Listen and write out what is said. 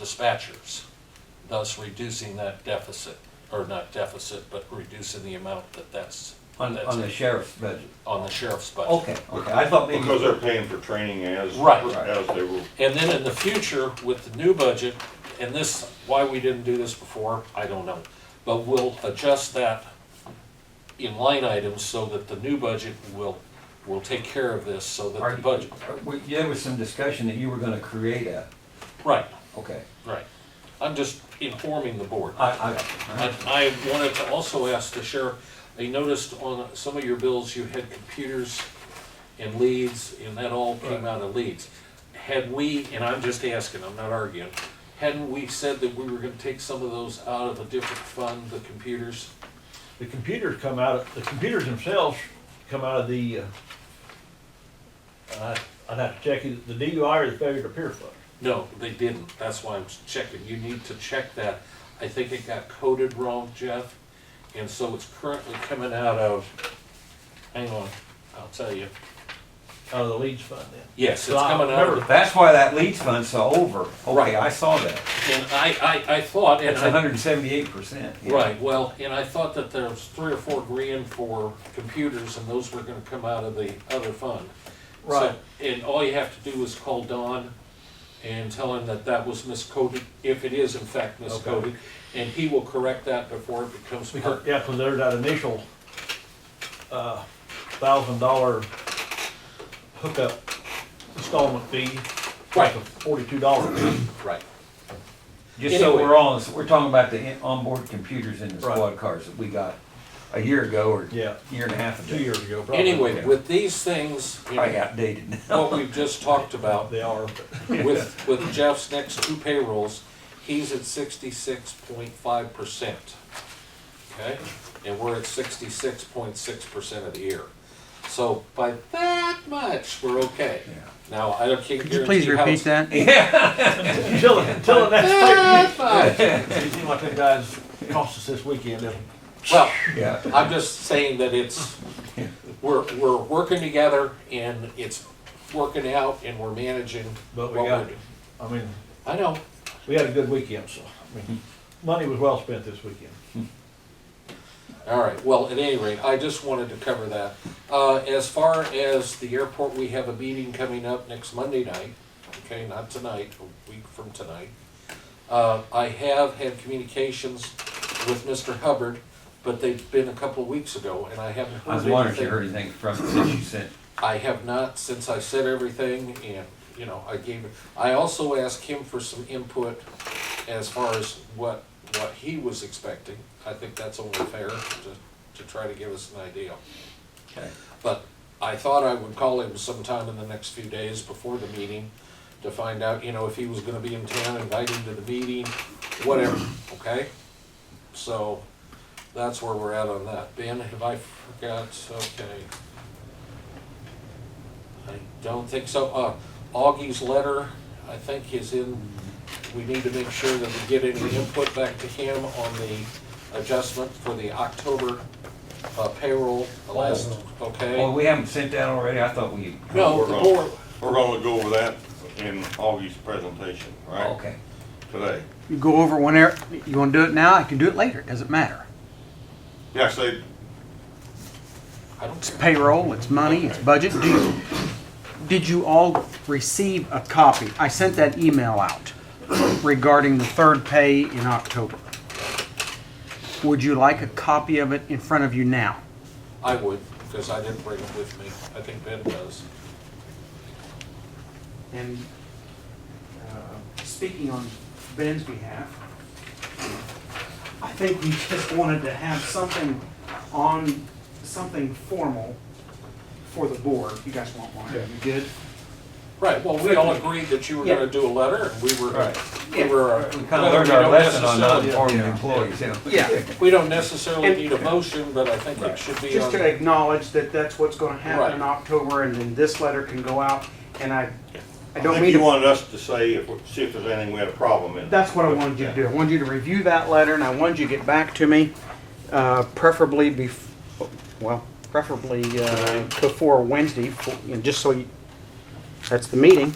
dispatchers, thus reducing that deficit, or not deficit, but reducing the amount that that's, On, that's on the Oh. sheriff's budget? on the sheriff's budget. Okay, okay, I thought maybe. Because they're paying for training as, Right. as they were, And then in the future, with the new budget, and this, why we didn't do this before, I don't know. But we'll adjust that in line items so that the new budget will, will take care of this, so that Are the you- budget, are we- There was some discussion that you were gonna create a, right, okay. right. I'm just informing the board. I, I, And I wanted to also ask the sheriff, I noticed on some of your bills, you had computers and leads, and that all came out of leads. Had we, and I'm just asking, I'm not arguing, hadn't we said that we were gonna take some of those out of a different fund, the computers? The computers come out, of the computers themselves come out of the, uh, I- I'd have to check it, the DUI or the failure to appear fund. No, they didn't, that's why I'm checking, you need to check that. I think it got coded wrong, Jeff, and so it's currently coming out of, hang on, I'll tell you. out of the leads fund then. Yes, So it's I coming out of the remember I, that's why that leads fund saw over. Right. Okay, I saw that. And I, I, I thought, and It's I, hundred and seventy-eight percent. right, well, and I thought that there was three or four grand for computers, and those were gonna come out of the other fund. So- Right. And all you have to do is call Don and tell him that that was miscoded, if it is in fact miscoded, and he will correct that before it becomes part. Because, yeah, because there's that initial, uh, thousand dollar hookup installment fee. Right. Forty-two dollars. Right. Just so Anyway. we're all, we're talking about the in- onboard computers in the Right. squad cars that we got a year ago or Yeah. year and a half ago. Two years ago, probably. Anyway, with these things, you Probably know, outdated now. what we've just talked about, They are, with, with Jeff's next two payrolls, he's at sixty-six point five percent. Okay, and we're at sixty-six point six percent of the year. So by that much, we're okay. Yeah. Now, I don't, can't Could you please guarantee how repeat it's. that? until, until the next pay. That much. It seemed like them guys cost us this weekend, didn't it? Well, Yeah. I'm just saying that it's, Yeah. we're, we're working together and it's working out and we're managing what But we we're got- doing. I mean, I know, we had a good weekend, so, I mean, money was well spent this weekend. All right, well, at any rate, I just wanted to cover that. Uh, as far as the airport, we have a meeting coming up next Monday night, okay, not tonight, a week from tonight. Uh, I have had communications with Mr. Hubbard, but they've been a couple of weeks ago, and I haven't I heard was anything. wondering if you heard anything from it since you sent. I have not, since I said everything, and, you know, I gave, I also asked him for some input as far as what, what he was expecting. I think that's only fair to, to try to give us an idea. Okay. But I thought I would call him sometime in the next few days before the meeting to find out, you know, if he was gonna be in town, invite him to the meeting, whatever, okay? So, that's where we're at on that. Ben, have I forgot, okay. I don't think so. Uh, Augie's letter, I think is in, we need to make sure that we get any input back to him on the adjustment for the October uh, payroll last, okay? Oh. Well, we haven't sent that already. I thought we. No, the board, we're gonna go over that in Augie's presentation, right? Okay. Today. You go over whenever, you wanna do it now, I can do it later, it doesn't matter. Yeah, say, I don't It's care. payroll, it's money, it's budget. Do you- Did you all receive a copy? I sent that email out regarding the third pay in October. Would you like a copy of it in front of you now? I would, because I didn't bring it with me. I think Ben does. And uh, speaking on Ben's behalf, I think we just wanted to have something on, something formal for the board. You guys want one, are you good? Right, well, we all agreed that you were gonna Yeah. do a letter, and we were, Right. we were. uh, We kind of learned we our don't lesson on not necessarily- informing employees, you know. Yeah. We don't necessarily And- need a motion, but I think it should be Just on. to acknowledge that that's what's gonna happen in Right. October, and then this letter can go out, and I, I I don't think mean you to. wanted us to say if, see if there's anything we had a problem in. That's what I wanted you to do. I wanted you to review that letter, and I wanted you to get back to me, uh, preferably bef, well, preferably, uh, before Wednesday, for- you know, just so you, that's the meeting.